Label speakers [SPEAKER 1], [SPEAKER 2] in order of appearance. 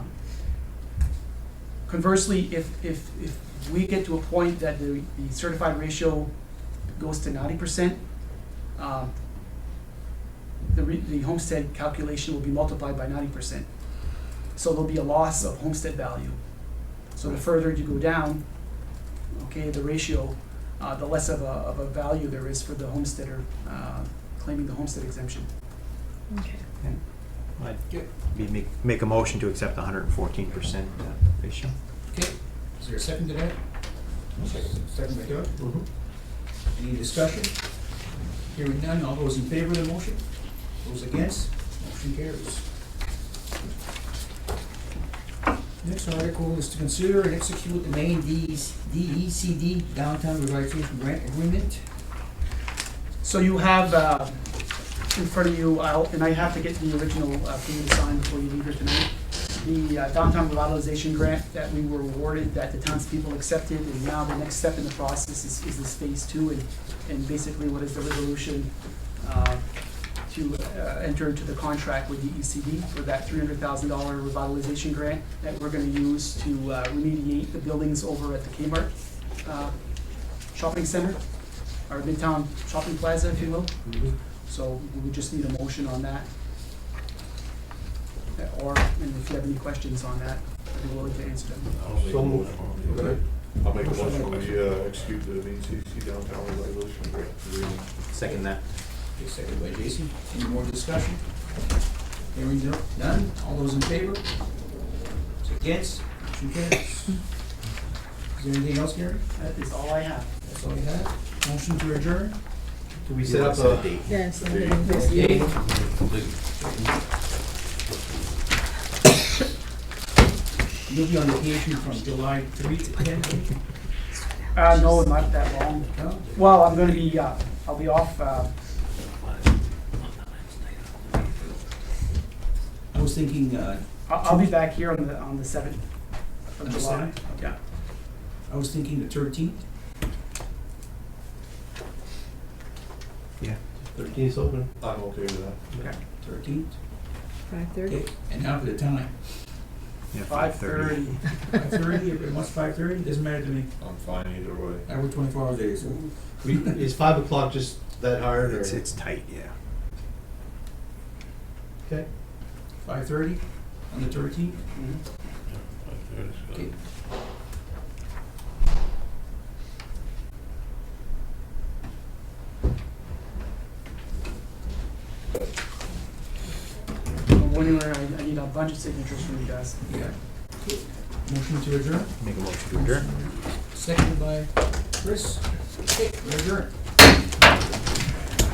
[SPEAKER 1] Conversely, if, if, if we get to a point that the, the certified ratio goes to ninety percent, um, the re, the homestead calculation will be multiplied by ninety percent. So there'll be a loss of homestead value. So the further you go down, okay, the ratio, uh, the less of a, of a value there is for the homesteader, uh, claiming the homestead exemption.
[SPEAKER 2] Okay.
[SPEAKER 3] I'd
[SPEAKER 4] Yeah.
[SPEAKER 3] be, make, make a motion to accept the hundred and fourteen percent uh, ratio.
[SPEAKER 4] Okay, is there a second to that? Second by Doug. Any discussion? Hearing none, all those in favor of the motion? Those against? Motion carries. Next article is to consider and execute the main E D's- DECD Downtown Revitalization Grant Agreement.
[SPEAKER 1] So you have, uh, in front of you, I'll- and I have to get the original uh, for you to sign before you leave here tonight, the uh, downtown revitalization grant that we were awarded, that the townspeople accepted, and now the next step in the process is, is this phase two, and, and basically what is the resolution uh, to uh, enter into the contract with DECD for that three hundred thousand dollar revitalization grant that we're gonna use to uh, remediate the buildings over at the Kmart uh, shopping center our Midtown Shopping Plaza, if you will. So we would just need a motion on that. Uh, Or, and if you have any questions on that, I'd be willing to answer them.
[SPEAKER 5] I'll make a
[SPEAKER 6] So moved.
[SPEAKER 5] motion. I'll make a motion, we uh, execute the VCC downtown revitalization grant agreement.
[SPEAKER 3] Second that.
[SPEAKER 4] Okay, Second by Jason. Any more discussion? Hearing no- none, all those in favor? Those Against? Motion carries. Is there anything else, Gary?
[SPEAKER 1] That is all I have.
[SPEAKER 4] That's all you have? Motion to adjourn?
[SPEAKER 3] Do we
[SPEAKER 6] set up a-
[SPEAKER 3] date?
[SPEAKER 2] Yes.
[SPEAKER 5] There you
[SPEAKER 2] okay.
[SPEAKER 5] go.
[SPEAKER 4] Yay. You'll be on vacation from July three to ten,
[SPEAKER 1] Uh, no, not that long.
[SPEAKER 4] no?
[SPEAKER 1] Well, I'm gonna be, uh, I'll be off, uh,
[SPEAKER 4] I was thinking, uh,
[SPEAKER 1] I'll, I'll be back here on the, on the seventh
[SPEAKER 4] on
[SPEAKER 1] of
[SPEAKER 4] the
[SPEAKER 1] July.
[SPEAKER 4] seventh? Yeah. I was thinking the thirteenth.
[SPEAKER 6] Thirteen's open.
[SPEAKER 5] I'm okay with that.
[SPEAKER 4] Thirteenth.
[SPEAKER 2] Five thirty.
[SPEAKER 4] Okay, and now for the time.
[SPEAKER 3] Yeah,
[SPEAKER 1] Five thirty.
[SPEAKER 4] Five thirty, if it wants five thirty, doesn't matter to me.
[SPEAKER 5] I'm fine either way.
[SPEAKER 4] I work twenty-four hour days. so-
[SPEAKER 6] Is five o'clock just that hard or?
[SPEAKER 3] It's, it's tight, yeah.
[SPEAKER 6] Okay.
[SPEAKER 4] Five thirty on the thirteenth?
[SPEAKER 1] Mm-hmm.
[SPEAKER 4] Okay.
[SPEAKER 1] I'm wondering, I, I need a bunch of signatures from you guys.
[SPEAKER 4] Yeah. Okay. Motion to adjourn,
[SPEAKER 3] Make a motion to adjourn.
[SPEAKER 4] seconded by Chris. Okay, we're adjourned.